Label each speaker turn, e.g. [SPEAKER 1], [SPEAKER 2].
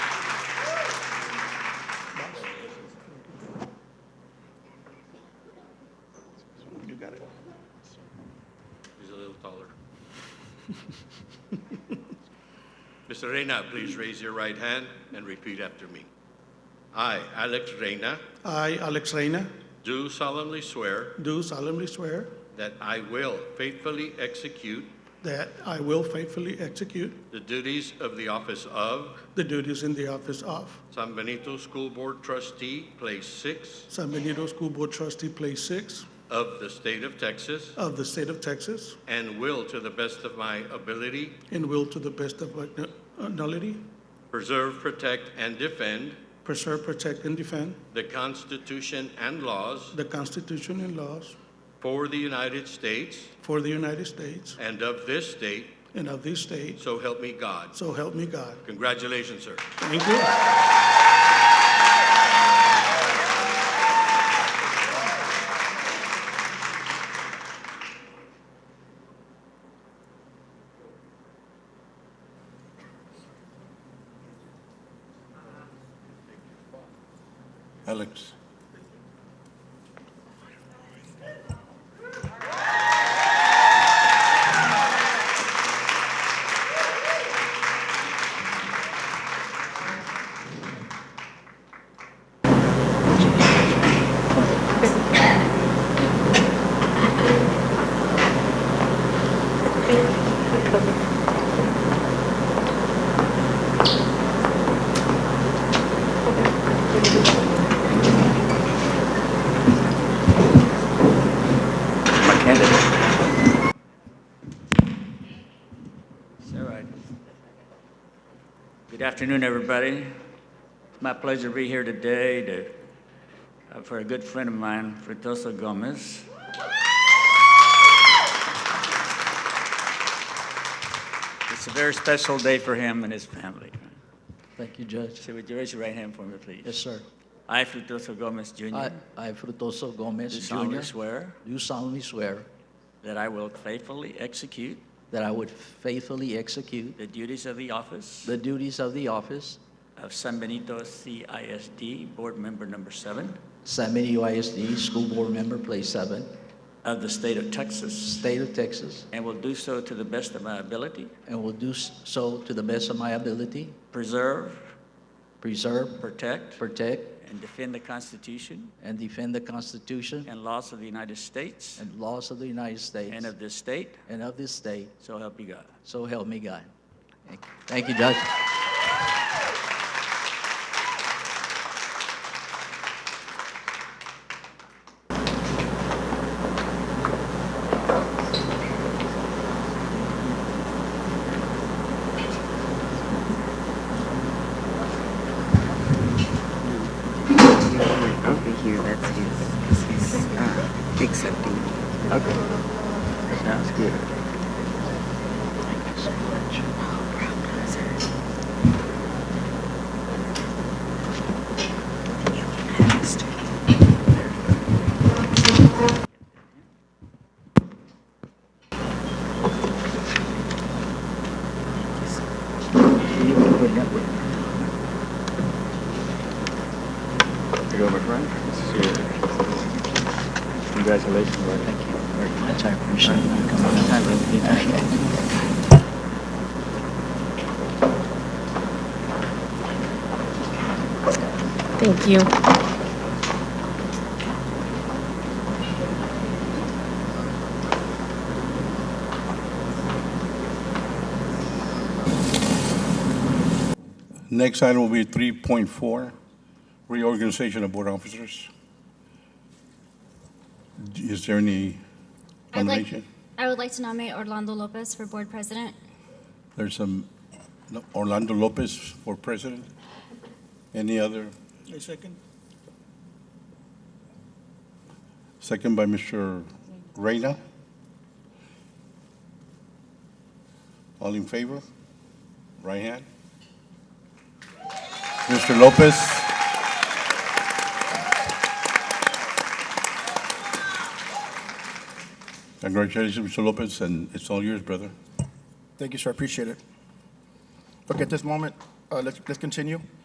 [SPEAKER 1] Mr. Reyna, please raise your right hand and repeat after me. I, Alex Reyna,
[SPEAKER 2] I, Alex Reyna,
[SPEAKER 1] do solemnly swear
[SPEAKER 2] do solemnly swear
[SPEAKER 1] that I will faithfully execute
[SPEAKER 2] that I will faithfully execute
[SPEAKER 1] the duties of the office of
[SPEAKER 2] the duties in the office of
[SPEAKER 1] San Benito School Board Trustee, Place 6
[SPEAKER 2] San Benito School Board Trustee, Place 6
[SPEAKER 1] of the State of Texas,
[SPEAKER 2] of the state of Texas,
[SPEAKER 1] and will, to the best of my ability,
[SPEAKER 2] and will to the best of my knowledge
[SPEAKER 1] preserve, protect, and defend
[SPEAKER 2] preserve, protect, and defend
[SPEAKER 1] the Constitution and laws
[SPEAKER 2] the Constitution and laws
[SPEAKER 1] for the United States
[SPEAKER 2] for the United States
[SPEAKER 1] and of this state,
[SPEAKER 2] and of this state,
[SPEAKER 1] so help me God.
[SPEAKER 2] so help me God.
[SPEAKER 1] Congratulations, sir.
[SPEAKER 2] Thank you.
[SPEAKER 3] Alex.
[SPEAKER 4] my candidate. It's all right. Good afternoon, everybody. It's my pleasure to be here today to, uh, for a good friend of mine, Frutoso Gomez. It's a very special day for him and his family.
[SPEAKER 5] Thank you, Judge.
[SPEAKER 4] So would you raise your right hand for me, please?
[SPEAKER 5] Yes, sir.
[SPEAKER 4] I, Frutoso Gomez Jr.
[SPEAKER 5] I, I, Frutoso Gomez
[SPEAKER 4] do
[SPEAKER 5] Jr.
[SPEAKER 4] solemnly swear
[SPEAKER 5] Do solemnly swear
[SPEAKER 4] that I will faithfully execute
[SPEAKER 5] that I would faithfully execute
[SPEAKER 4] the duties of the office
[SPEAKER 5] the duties of the office,
[SPEAKER 4] of San Benito CISD, Board Member Number Seven
[SPEAKER 5] San Benito ISD School Board Member, Place 7,
[SPEAKER 4] of the State of Texas,
[SPEAKER 5] State of Texas,
[SPEAKER 4] and will do so to the best of my ability,
[SPEAKER 5] and will do so to the best of my ability,
[SPEAKER 4] preserve,
[SPEAKER 5] preserve,
[SPEAKER 4] protect,
[SPEAKER 5] protect,
[SPEAKER 4] and defend the Constitution
[SPEAKER 5] and defend the Constitution
[SPEAKER 4] and laws of the United States
[SPEAKER 5] and laws of the United States
[SPEAKER 4] and of this state,
[SPEAKER 5] and of this state,
[SPEAKER 4] so help you God.
[SPEAKER 5] so help me God. Thank- Thank you, Judge.
[SPEAKER 6] Wait, over here, that's his, 'cause he's uh, accepting. Okay.
[SPEAKER 4] Sounds good.
[SPEAKER 3] You go, my friend. This is your- Congratulations, buddy. Thank you very much. I appreciate it.
[SPEAKER 7] Thank you.
[SPEAKER 3] Next item will be 3.4, reorganization of board officers. D- Is there any
[SPEAKER 8] I'd like-
[SPEAKER 3] nomination?
[SPEAKER 8] I would like to nominate Orlando Lopez for board president.
[SPEAKER 3] There's some no, Orlando Lopez for president. Any other?
[SPEAKER 2] A second.
[SPEAKER 3] Second by Mr. Reyna. All in favor? Right hand. Mr. Lopez. Congratulations, Mr. Lopez, and it's all yours, brother.
[SPEAKER 9] Thank you, sir. Appreciate it. Okay, at this moment, uh, let's, let's continue.